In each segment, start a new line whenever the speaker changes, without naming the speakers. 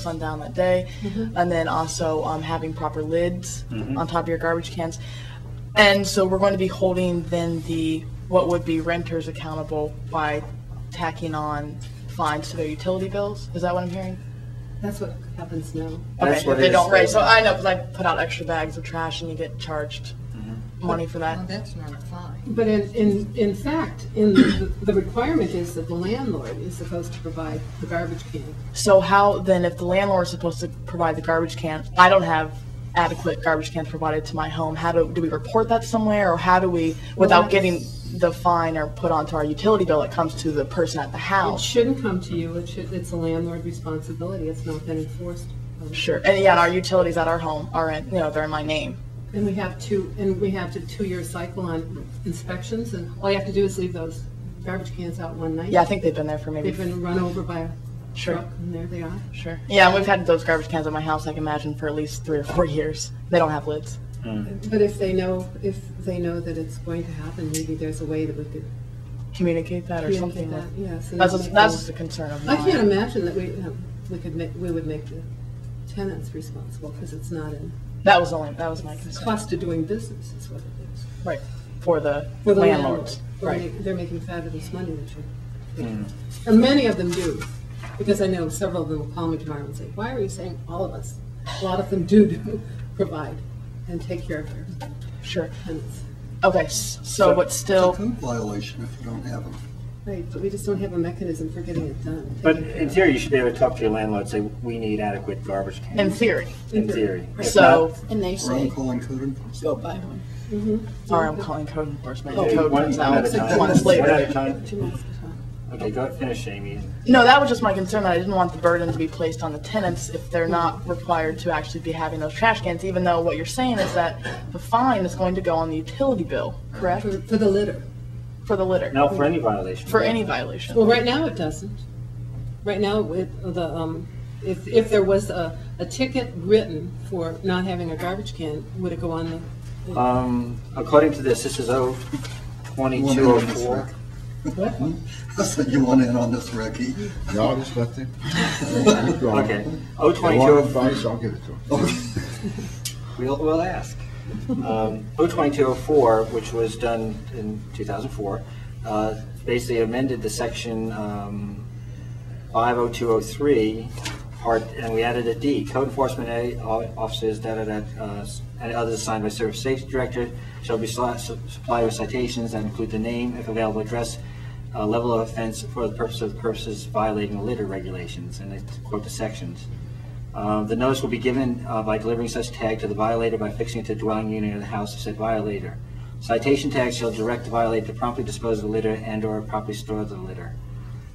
sundown that day, and then also um, having proper lids
Mm-hmm.
on top of your garbage cans. And so we're going to be holding then the what would be renters accountable by tacking on fines to their utility bills. Is that what I'm hearing?
That's what happens now.
That's
okay,
what
if they
it
don't
is.
raise. So I know because I put out extra bags of trash and you get charged
Mm-hmm.
money for that.
Well, that's not a fine.
But in, in, in fact, in the, the requirement is that the landlord is supposed to provide the garbage can.
So how then, if the landlord is supposed to provide the garbage can, I don't have adequate garbage cans provided to my home. How do do we report that somewhere, or how do we, without
that's-
getting the fine or put onto our utility bill, it comes to the person at the
It
house?
shouldn't come to you, it should, it's a landlord responsibility, it's not been enforced. Um,
Sure. And yeah, and our utilities at our home are in, you know, they're in my name.
And we have two, and we have a two-year cycle on inspections, and all you have to do is leave those garbage cans out one night.
Yeah, I think they've been there for maybe.
They've been run over by a
Sure.
truck, and there they are.
Sure. Yeah, and we've had those garbage cans at my house. I can imagine for at least three or four years. They don't have lids.
But if they know, if they know that it's going to happen, maybe there's a way that we could
Communicate that or something.
communicate that,
like-
yeah. so
That's
you
just,
make
that's
them-
just a concern of
I
mine.
can't imagine that we, um, we could make, we would make the tenants responsible, because it's not in,
That was only that was my
it's
concern.
cost of doing business is what it is.
Right. For the
For the
landlords.
landlord. They're
Right. Mm.
ma- They're making fabulous money that you're, and many of them do, because I know several of them will call me tomorrow and say, why are you saying all of us? A lot of them do, do provide and take care of their
Sure.
tenants.
Okay, s- so but still,
It's a code violation if you don't have them.
Right, but we just don't have a mechanism for getting it done.
But in theory, you should be able to talk to your landlord, say, we need adequate garbage cans.
in theory.
In theory. If
So,
And they
Or I'm
say,
calling code enforcement.
go buy one.
Mm-hmm.
sorry, I'm calling code enforcement.
not-
The code
Oh, One-
comes
one at a
out
time.
months
One
later.
at a time.
Two months at a time.
Okay, go ahead, finish, Amy.
No, that was just my concern. that I didn't want the burden to be placed on the tenants if they're not required to actually be having those trash cans, even though what you're saying is that the fine is going to go on the utility bill, correct?
For, for the litter.
For the litter,
No, for any violation.
for any violation.
Well, right now it doesn't. Right now, with the, um, if, if there was a, a ticket written for not having a garbage can, would it go on the?
Um, according to this, this is O
You
twenty-two
want
oh
in on this,
four.
Rick? I said you want in on this, Ricky.
No, I just left it.
Okay, O
They
twenty-two
want
oh
advice, I'll give it to them.
We'll, we'll ask. Um, O2204, which was done in 2004, uh, basically amended the section um, 50203, part, and we added a D, code enforcement A- officers, da-da-da, uh, and others assigned by service safety director shall be sli- su- supplied with citations that include the name, if available, address, uh, level of offense for the purpose of purposes violating litter regulations, and I quote the sections. Uh, The notice will be given uh, by delivering such tag to the violator by fixing it to the dwelling unit of the house of said violator. Citation tags shall direct the violator to promptly dispose of the litter and/or properly store the litter.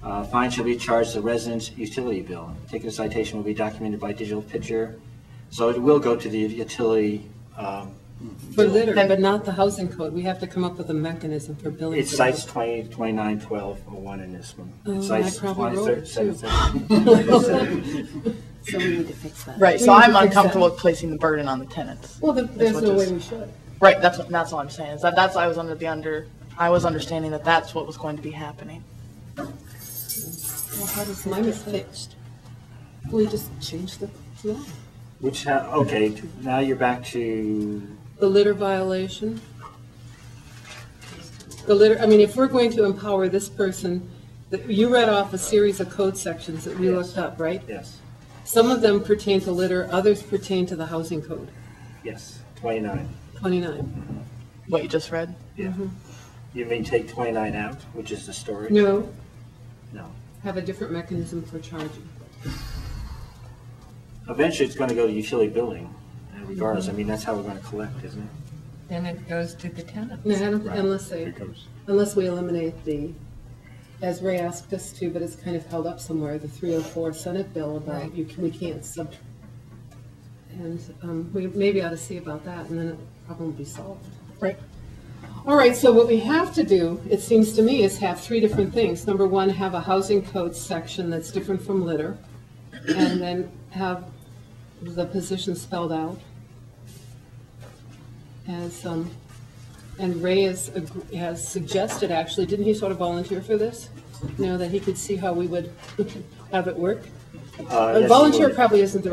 Uh, Fine shall be charged the resident's utility bill. Ticket citation will be documented by digital picture, so it will go to the utility. um,
For litter, but not the housing code. We have to come up with a mechanism for billing.
It cites 20, 29, 12, or 1 in this one.
Oh,
It
I
cites
probably
20,
wrote it,
37,
too.
37.
So we need to fix that.
Right, so
We need
I'm
to fix
uncomfortable
that.
with placing the burden on the tenants.
Well, there- there's
what
no
this-
way we should.
Right, that's, what- that's all I'm saying, is that, that's, I was under the under, I was understanding that that's what was going to be happening.
Well, how does my mistake? We just change the law.
Which, ha- okay, now you're back to
The litter violation. The litter, I mean, if we're going to empower this person, that- you read off a series of code sections that we looked up, right?
Yes,
Some of them pertain to litter, others pertain to the housing code,
yes, 29.
29.
What you just read?
Yeah. You mean take 29 out, which is the storage?
No,
No.
have a different mechanism for charging.
Eventually, it's going to go to utility billing uh, regardless. I mean, that's how we're going to collect, isn't it?
Then it goes to the tenants.
No, I don't-
Right.
Unless they,
Here comes.
unless we eliminate the, as Ray asked us to, but it's kind of held up somewhere, the 304 Senate bill about
Right.
you, can- we can't sub. And um, we maybe ought to see about that and then the problem will be solved.
Right.
All right, so what we have to do, it seems to me, is have three different things. Number one, have a housing code section that's different from litter, and then have the position spelled out. As, um, and Ray has, ag- has suggested, actually, didn't he sort of volunteer for this? You know, that he could see how we would have it work?
Uh,
A
yes,
volunteer
would.
probably isn't the